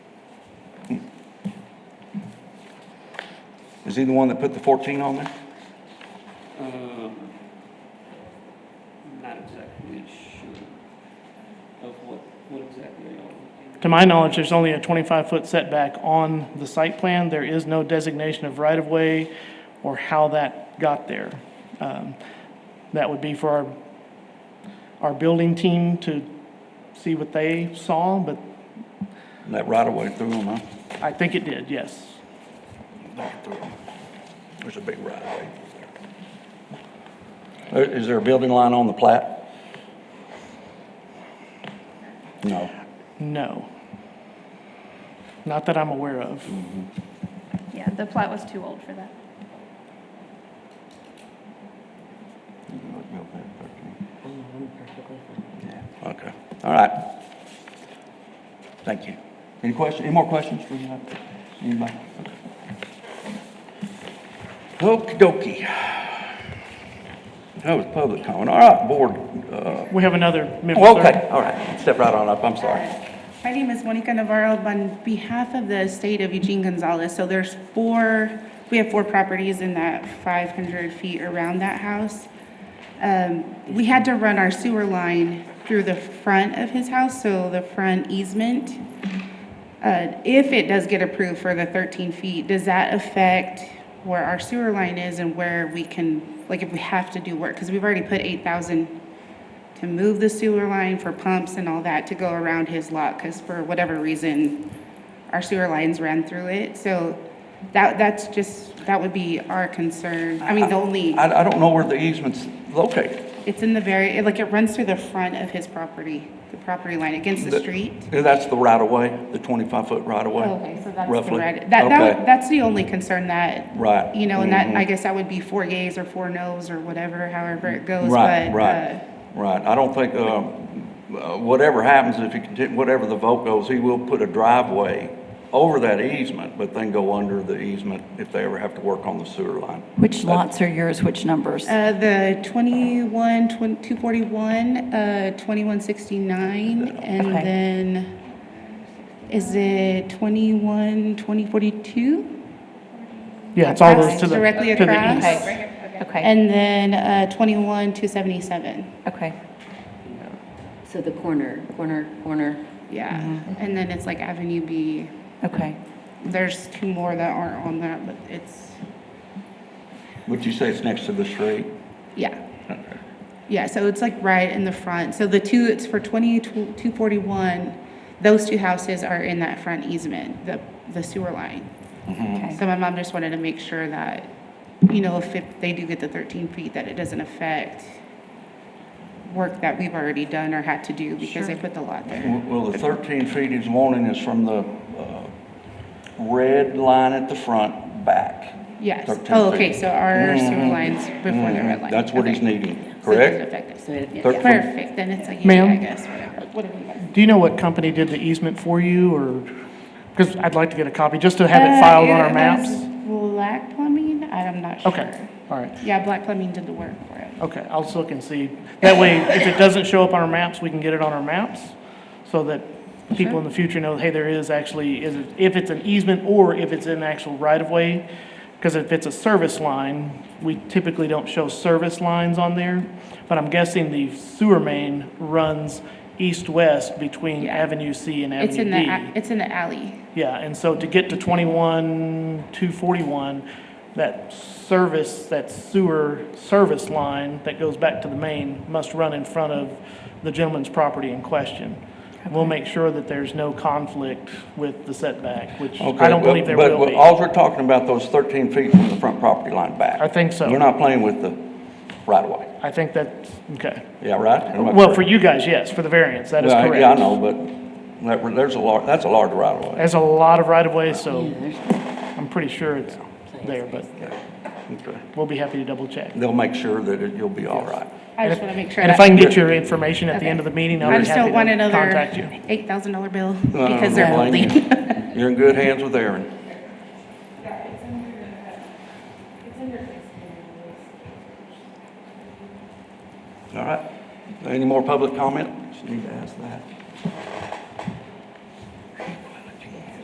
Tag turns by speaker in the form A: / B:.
A: Is he the one that put the fourteen on there?
B: Um, not exactly sure of what, what exactly they are.
C: To my knowledge, there's only a 25-foot setback on the site plan. There is no designation of right-of-way or how that got there. Um, That would be for our, our building team to see what they saw, but
A: That right away through him, huh?
C: I think it did, yes.
A: Back through him. There's a big right away. There- Is there a building line on the plat? No.
C: No. Not that I'm aware of.
D: Yeah, the plat was too old for that.
A: Yeah, Okay, all right. Thank you. Any question, any more questions for you? anybody? Okey dokey. That was public comment. All right, board, uh,
C: We have another member.
A: oh,
C: sir.
A: okay, all right, step right on up, I'm sorry.
E: My name is Monica Navarro on behalf of the estate of Eugene Gonzalez. So there's four, we have four properties in that 500 feet around that house. Um, We had to run our sewer line through the front of his house, so the front easement. Uh, If it does get approved for the 13 feet, does that affect where our sewer line is and where we can, like if we have to do work? Because we've already put 8,000 to move the sewer line for pumps and all that to go around his lot, because for whatever reason, our sewer lines ran through it, so that, that's just, that would be our concern. I mean, the only,
A: I, I don't know where the easement's located.
E: it's in the very, it- like, it runs through the front of his property, the property line, against the street.
A: Yeah, That's the right of way, the twenty-five foot right of way.
E: Oh, Okay, so that's the
A: roughly.
E: red, that, that,
A: Okay.
E: would- that's the only concern that.
A: Right. Mm-hmm.
E: You know, and that, I guess that would be four yays or four nos or whatever, however it goes, but.
A: Right,
E: uh,
A: right, right. I don't think, um, uh, whatever happens, if he continue, whatever the vote goes, he will put a driveway over that easement, but then go under the easement if they ever have to work on the sewer line.
F: Which lots are yours, which numbers?
E: Uh, the 21, 20 241, uh, 2169, and
F: Okay.
E: then, is it 21, 2042?
C: Yeah, it's all those
E: Across-
C: to the,
E: directly
C: to the
E: across.
C: east.
F: Okay, okay,
E: And then, uh, 21, 277,
F: okay.
G: So the corner, corner, corner.
E: yeah.
A: Mm-hmm.
E: And then it's like Avenue B.
F: Okay.
E: There's two more that aren't on that, but it's,
A: Would you say it's next to the street?
E: yeah.
A: Okay.
E: Yeah, so it's like right in the front. So the two, it's for 20, 241, those two houses are in that front easement, the, the sewer line.
F: Okay.
E: So my mom just wanted to make sure that, you know, if it- they do get the 13 feet, that it doesn't affect work that we've already done or had to do because they put the lot there.
A: Well, well, the 13 feet he's wanting is from the uh, red line at the front back.
E: Yes.
A: 13
E: Oh, okay,
A: feet.
E: so our sewer lines before the
A: Mhm.
E: red line.
A: That's what he's
E: Okay.
A: needing,
E: So it doesn't
A: correct?
E: affect us.
G: So it- yeah.
A: Thirteen.
E: Perfect, then it's like, yeah,
C: Ma'am?
E: I guess, whatever, whatever you guys.
C: Do you know what company did the easement for you, or, because I'd like to get a copy, just to have
E: Uh,
C: it filed on our
E: it
C: maps?
E: was Black Plumbing, I'm not sure.
C: Okay, all right,
E: Yeah, Black Plumbing did the work for it.
C: okay, I'll just look and see. That way, if it doesn't show up on our maps, we can get it on our maps, so that people in the future know, hey, there is actually, is it- if it's an easement or if it's an actual right-of-way, because if it's a service line, we typically don't show service lines on there, but I'm guessing the sewer main runs east-west between
E: Yeah.
C: Avenue C and Avenue D.
E: It's in the, a- it's in the alley.
C: Yeah, and so to get to twenty-one, two forty-one, that service, that sewer service line that goes back to the main must run in front of the gentleman's property in question. We'll make sure that there's no conflict with the setback, which
A: Okay,
C: I don't
A: well,
C: believe there
A: but-
C: will
A: but
C: be.
A: Alls we're talking about those 13 feet from the front property line back.
C: I think so.
A: We're not playing with the right-of-way,
C: I think that's, okay.
A: yeah, right? Am I
C: Well, for
A: correct?
C: you guys, yes, for the variance, that is
A: Well,
C: correct.
A: Yeah, I know, but that- there's a large, that's a large right-of-way.
C: There's a lot of right-of-way, so
G: There's-
C: I'm pretty sure it's there, but
A: Okay.
C: we'll be happy to double-check.
A: They'll make sure that it- you'll be all right.
E: I just want to make sure.
C: And if
E: that-
C: I can get your information at the end of the meeting,
E: I
C: I'll be
E: just
C: happy
E: don't
C: to
E: want another
C: contact you.
E: eight thousand dollar bill
A: No, I don't
E: because they're
A: blame you.
E: holding.
A: You're Um, in good hands with Aaron. All right. Any more public comment? Just need to ask that.